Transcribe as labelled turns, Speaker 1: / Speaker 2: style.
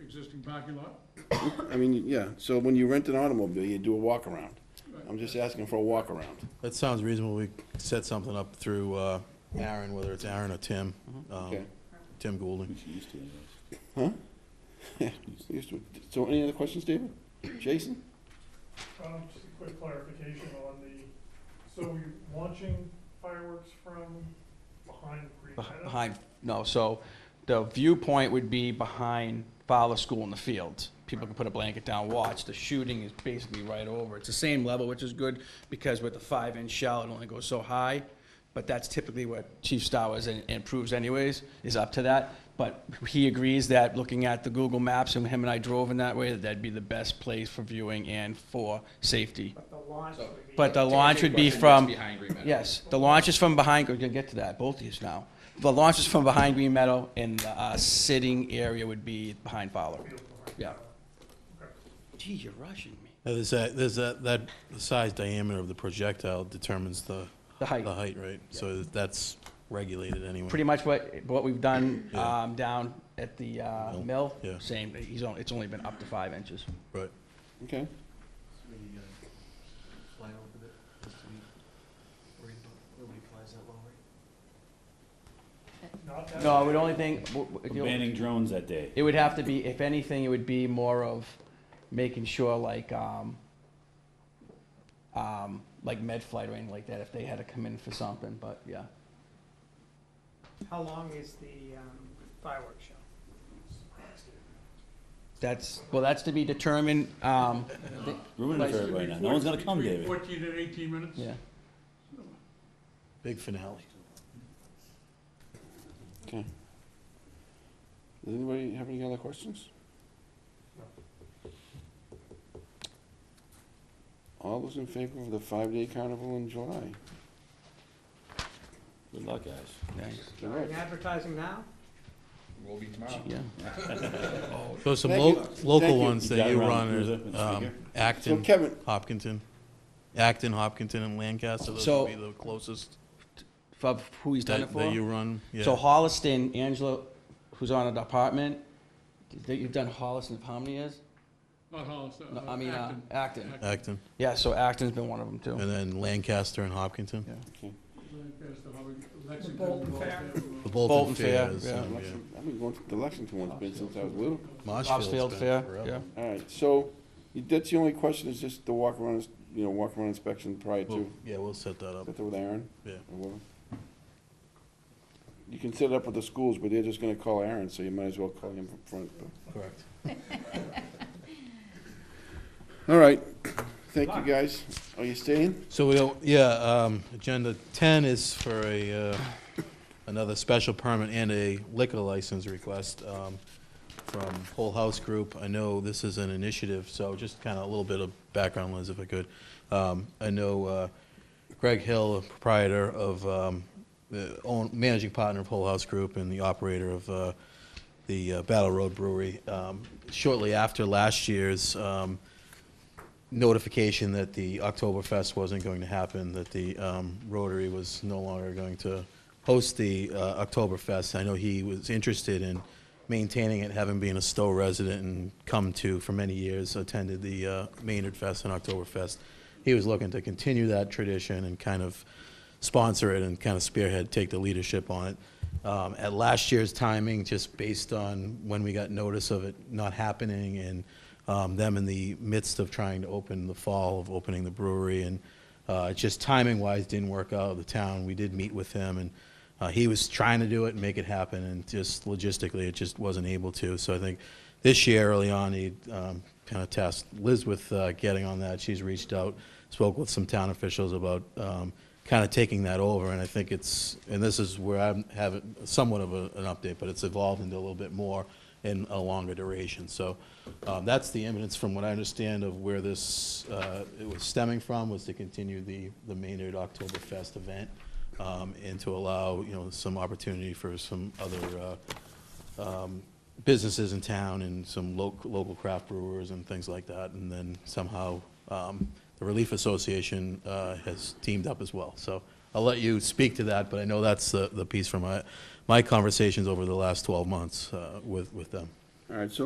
Speaker 1: existing parking lot?
Speaker 2: I mean, yeah, so when you rent an automobile, you do a walk around. I'm just asking for a walk around.
Speaker 3: That sounds reasonable. We set something up through uh, Aaron, whether it's Aaron or Tim, um,
Speaker 2: Okay.
Speaker 3: Tim Goulding.
Speaker 2: So any other questions, David? Jason?
Speaker 4: Um, just a quick clarification on the, so you're launching fireworks from behind Green
Speaker 5: Beh-
Speaker 4: Meadow?
Speaker 5: Behind, no, so the viewpoint would be behind Fowler School in the field. People can put a blanket down, watch. The shooting is basically right over. It's the same level, which is good, because with the five-inch shell, it only goes so high. But that's typically what Chief Star was and and proves anyways, is up to that. But he agrees that, looking at the Google Maps, and him and I drove in that way, that that'd be the best place for viewing and for safety.
Speaker 6: But the launch would be.
Speaker 5: But the launch would be
Speaker 7: Question,
Speaker 5: from.
Speaker 7: what's Behind Green Meadow.
Speaker 5: Yes, the launch is from behind, we're gonna get to that, both of these now. The launch is from behind Green Meadow, and the uh, sitting area would be behind Fowler. Yeah. Gee, you're rushing me.
Speaker 3: Now, There's that, there's that, that the size diameter of the projectile determines the.
Speaker 5: The height.
Speaker 3: The height, right? So that's regulated anyway.
Speaker 5: Pretty much what, what we've done
Speaker 3: Yeah.
Speaker 5: um, down at the uh,
Speaker 3: Mill,
Speaker 5: mill,
Speaker 3: yeah.
Speaker 5: same, he's only, it's only been up to five inches.
Speaker 3: Right.
Speaker 2: Okay.
Speaker 8: Maybe, uh, fly over the, just to be worried about, nobody flies that low, right?
Speaker 4: Not that.
Speaker 5: No, I would only think, w- w-
Speaker 9: We're Banning drones that day.
Speaker 5: it would have to be, if anything, it would be more of making sure like, um, um, like Medflight or anything like that, if they had to come in for something, but yeah.
Speaker 6: How long is the um, fireworks show?
Speaker 5: That's, well, that's to be determined, um,
Speaker 9: Ruining it for everybody now. No one's gonna come,
Speaker 1: Between
Speaker 9: David.
Speaker 1: Fourteen and eighteen minutes?
Speaker 5: yeah.
Speaker 3: Big finale.
Speaker 2: Okay. Does anybody have any other questions? All those in favor of the five-day carnival in July?
Speaker 9: Good luck, guys.
Speaker 2: All
Speaker 6: Are
Speaker 2: right.
Speaker 6: you advertising now?
Speaker 7: Will be tomorrow.
Speaker 5: Yeah.
Speaker 3: So some
Speaker 2: Thank
Speaker 3: lo-
Speaker 2: you. Thank
Speaker 3: local
Speaker 2: you.
Speaker 3: ones
Speaker 9: You
Speaker 3: that
Speaker 9: got
Speaker 3: you
Speaker 9: around
Speaker 3: run
Speaker 9: the cruiser and
Speaker 3: are um,
Speaker 9: speaker.
Speaker 2: So
Speaker 3: Acton,
Speaker 2: Kevin,
Speaker 3: Hopkinton. Acton, Hopkinton, and Lancaster, those
Speaker 5: So-
Speaker 3: would be the closest
Speaker 5: Of who he's done it
Speaker 3: that
Speaker 5: for?
Speaker 3: that you run. Yeah.
Speaker 5: So Holliston, Angela, who's on a department, that you've done Holliston for how many years?
Speaker 1: Not Hollis, uh,
Speaker 5: No, I mean, uh,
Speaker 1: Acton.
Speaker 5: Acton.
Speaker 3: Acton,
Speaker 5: Yeah, so Acton's been one of them too.
Speaker 3: and then Lancaster and Hopkinton.
Speaker 5: Yeah.
Speaker 1: Lancaster, Howard, Lexington,
Speaker 6: Bolton Fair.
Speaker 1: Bolton.
Speaker 3: The
Speaker 5: Bolton
Speaker 3: Bolton
Speaker 5: Fair,
Speaker 3: Fair is,
Speaker 5: yeah.
Speaker 3: um, yeah.
Speaker 2: Lexington- I've been going to the Lexington one's been since I was little.
Speaker 3: Marshfield's
Speaker 5: Bobsfield
Speaker 3: been
Speaker 5: Fair,
Speaker 3: forever.
Speaker 5: yeah.
Speaker 2: All right, so you- that's the only question, is just the walk around, is- you know, walk around inspection prior to,
Speaker 3: We'll-
Speaker 2: is
Speaker 3: Yeah, we'll set that up,
Speaker 2: that with Aaron?
Speaker 3: yeah.
Speaker 2: or whatever? You can set it up with the schools, but they're just gonna call Aaron, so you might as well call him from front. but-
Speaker 3: Correct.
Speaker 2: All right, thank you, guys. Are you staying?
Speaker 3: So we don't, yeah, um, agenda ten is for a, uh, another special permit and a liquor license request, um, from Whole House Group. I know this is an initiative, so just kinda a little bit of background, Liz, if I could. Um, I know, uh, Greg Hill, proprietor of, um, the own, managing partner of Whole House Group and the operator of, uh, the uh, Battle Road Brewery, um, shortly after last year's, um, notification that the Oktoberfest wasn't going to happen, that the um, Rotary was no longer going to host the uh, Oktoberfest. I know he was interested in maintaining it, having been a Stowe resident and come to, for many years, attended the uh, Maynard Fest and Oktoberfest. He was looking to continue that tradition and kind of sponsor it and kind of spearhead, take the leadership on it. Um, At last year's timing, just based on when we got notice of it not happening and um, them in the midst of trying to open the fall of opening the brewery and uh, just timing wise didn't work out of the town. We did meet with him and uh, he was trying to do it and make it happen and just logistically it just wasn't able to. So I think this year early on, he um, kind of tasked Liz with uh, getting on that. She's reached out, spoke with some town officials about um, kind of taking that over. And I think it's, and this is where I have it somewhat of a, an update, but it's evolved into a little bit more in a longer duration. So um, that's the evidence from what I understand of where this, uh, it was stemming from, was to continue the, the Maynard Oktoberfest event um, and to allow, you know, some opportunity for some other uh, um, businesses in town and some lo- local craft brewers and things like that. And then somehow um, the Relief Association uh, has teamed up as well. So I'll let you speak to that, but I know that's the the piece from my my conversations over the last 12 months uh, with with them.
Speaker 2: All right, so